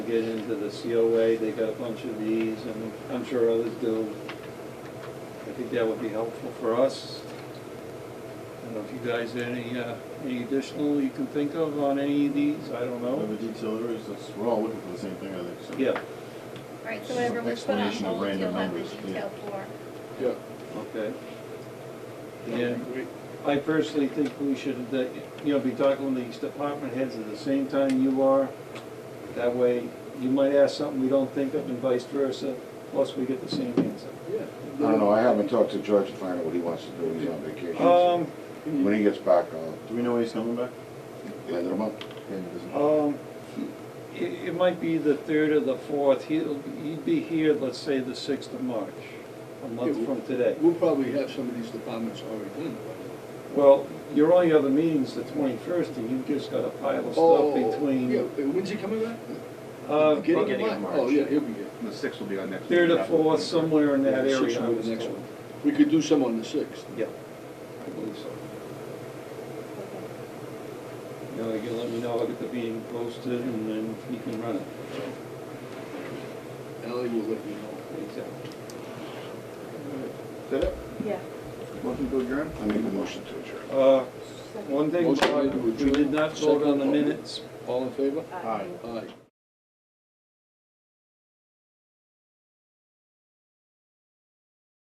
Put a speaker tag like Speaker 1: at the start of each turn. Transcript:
Speaker 1: get into the COA, they got a bunch of these, and I'm sure others do. I think that would be helpful for us. I don't know if you guys had any, uh, any additional you can think of on any of these, I don't
Speaker 2: Well,
Speaker 1: know.
Speaker 2: the detailers, that's, we're all looking for the same thing, I think, so.
Speaker 1: Yeah,
Speaker 3: Right, so whatever we put on
Speaker 2: Explanation of
Speaker 3: hold, you'll
Speaker 2: random
Speaker 3: have the
Speaker 2: numbers, yeah.
Speaker 3: detail for.
Speaker 4: Yeah.
Speaker 1: okay.
Speaker 4: that'd be
Speaker 1: Yeah.
Speaker 4: great.
Speaker 1: I personally think we should, uh, you know, be talking to these department heads at the same time you are. That way, you might ask something we don't think of and vice versa, plus we get the same answer.
Speaker 4: Yeah.
Speaker 5: I don't know, I haven't talked to George to find out what he wants to do, he's on vacation. so
Speaker 1: Um,
Speaker 4: Can
Speaker 5: When
Speaker 4: you-
Speaker 5: he gets back, I'll,
Speaker 2: Do we know when he's coming back?
Speaker 5: the end of the month.
Speaker 2: Maybe he doesn't.
Speaker 1: um, it, it might be the third or the fourth, he'll, he'd be here, let's say, the sixth of March, a month from today.
Speaker 4: We'll probably have some of these departments already done. by
Speaker 1: Well, your only other meeting's the twenty-first, and you've just got a pile
Speaker 4: then.
Speaker 1: of stuff
Speaker 4: Oh, Yeah,
Speaker 1: between,
Speaker 4: when's he coming back?
Speaker 1: uh,
Speaker 4: Beginning
Speaker 1: but-
Speaker 4: of Oh, yeah, he'll be here.
Speaker 2: The sixth will be on next.
Speaker 1: third or fourth, somewhere in that
Speaker 4: Yeah, the
Speaker 1: area.
Speaker 4: sixth
Speaker 1: I
Speaker 4: will be
Speaker 1: was
Speaker 4: the next
Speaker 1: told.
Speaker 4: one. We could do some on the sixth.
Speaker 1: Yeah, I believe so. You know, you let me know, I'll get the meeting posted, and then you can run it.
Speaker 4: Ally will let you know.
Speaker 2: Is that it?
Speaker 6: Yeah.
Speaker 2: Motion to adjourn?
Speaker 5: I make a motion to adjourn.
Speaker 1: Uh, one thing,
Speaker 4: Motion made to
Speaker 1: Bob, we
Speaker 4: adjourn.
Speaker 1: did not vote on the
Speaker 4: Second.
Speaker 1: minutes.
Speaker 4: All in favor?
Speaker 2: Aye.
Speaker 4: Aye.